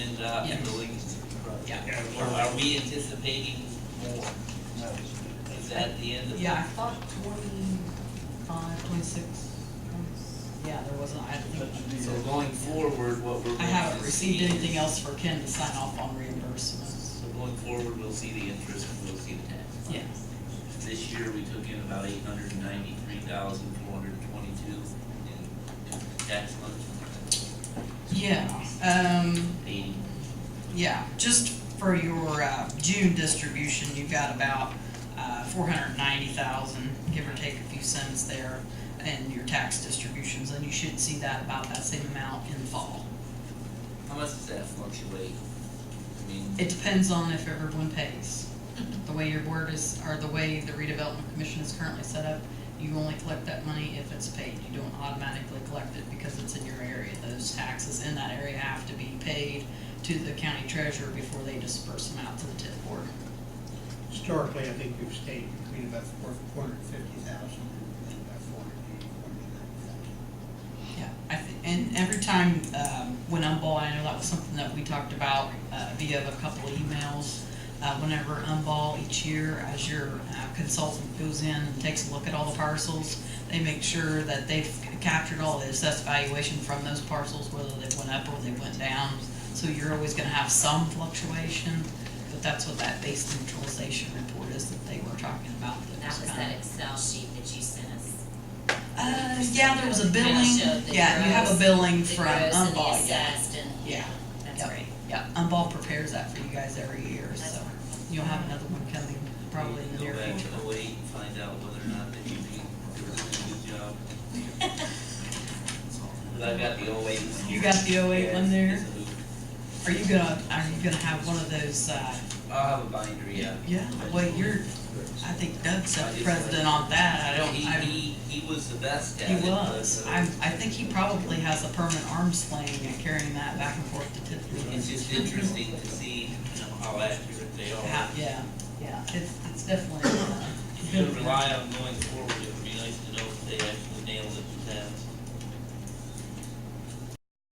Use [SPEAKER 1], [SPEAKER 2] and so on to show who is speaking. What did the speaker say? [SPEAKER 1] it up in the least.
[SPEAKER 2] Yeah.
[SPEAKER 1] Or are we anticipating more? Is that the end of?
[SPEAKER 2] Yeah, I thought twenty-five, twenty-six, yeah, there wasn't, I think,
[SPEAKER 1] So going forward, what we're.
[SPEAKER 2] I
[SPEAKER 1] going
[SPEAKER 2] haven't
[SPEAKER 1] to
[SPEAKER 2] received
[SPEAKER 1] see
[SPEAKER 2] anything
[SPEAKER 1] is-
[SPEAKER 2] else for Ken to sign off on reimbursements.
[SPEAKER 1] So going forward, we'll see the interest and we'll see the tax.
[SPEAKER 2] Yeah,
[SPEAKER 1] This year, we took in about eight hundred and ninety-three thousand, four hundred and twenty-two in, in tax money,
[SPEAKER 2] yeah, um,
[SPEAKER 1] eighty.
[SPEAKER 2] yeah, just for your, uh, June distribution, you've got about, uh, four hundred ninety thousand, give or take a few cents there, and your tax distributions, and you should see that about that same amount in the fall.
[SPEAKER 1] How much does that fluctuate? I mean,
[SPEAKER 2] It depends on if everyone pays. The way your board is, or the way the redevelopment commission is currently set up, you only collect that money if it's paid. You don't automatically collect it because it's in your area. Those taxes in that area have to be paid to the county treasurer before they disperse them out to the TIF board.
[SPEAKER 3] Historically, I think we've stayed between about four, four hundred and fifty thousand and about four hundred and eighty, four hundred and ninety thousand.
[SPEAKER 2] Yeah, I think, and every time, um, when Umball, I know that was something that we talked about, uh, via a couple of emails. Uh, whenever Umball each year, as your uh, consultant goes in and takes a look at all the parcels, they make sure that they've captured all the assessed valuation from those parcels, whether they went up or they went down. So you're always gonna have some fluctuation, but that's what that base neutralization report is that they were talking about.
[SPEAKER 4] That was
[SPEAKER 2] kinda-
[SPEAKER 4] that Excel sheet that you sent us.
[SPEAKER 2] Uh, yeah, there was a
[SPEAKER 4] Kinda
[SPEAKER 2] billing,
[SPEAKER 4] showed the
[SPEAKER 2] yeah, you have a
[SPEAKER 4] gross-
[SPEAKER 2] billing
[SPEAKER 4] The
[SPEAKER 2] from
[SPEAKER 4] gross and the
[SPEAKER 2] Umball, yeah.
[SPEAKER 4] assessed and,
[SPEAKER 2] Yeah.
[SPEAKER 4] yeah, that's
[SPEAKER 2] Yep.
[SPEAKER 4] right.
[SPEAKER 2] Yeah, Umball prepares that for you guys every year,
[SPEAKER 4] That's
[SPEAKER 2] so
[SPEAKER 4] wonderful.
[SPEAKER 2] you'll have another one coming probably in the
[SPEAKER 1] we
[SPEAKER 2] near
[SPEAKER 1] can
[SPEAKER 2] future.
[SPEAKER 1] Go back to wait and find out whether or not that you think you're doing a good job. But I've got the 08 one.
[SPEAKER 2] You got the 08 one there?
[SPEAKER 1] Yeah, it's a hoop.
[SPEAKER 2] Are you gonna, are you gonna have one of those, uh,
[SPEAKER 1] I'll have a binder, yeah.
[SPEAKER 2] yeah, well, you're, I think Doug's
[SPEAKER 1] I
[SPEAKER 2] the
[SPEAKER 1] just
[SPEAKER 2] president on that, I don't,
[SPEAKER 1] He,
[SPEAKER 2] I,
[SPEAKER 1] he, he was the best at it.
[SPEAKER 2] he was.
[SPEAKER 1] but, uh,
[SPEAKER 2] I'm, I think he probably has a permanent arm sling and carrying that back and forth to Tiffany.
[SPEAKER 1] It's just interesting to see, you know, how accurate they are.
[SPEAKER 2] Yeah, yeah, yeah, it's, it's definitely, uh,
[SPEAKER 1] You can rely on going forward, if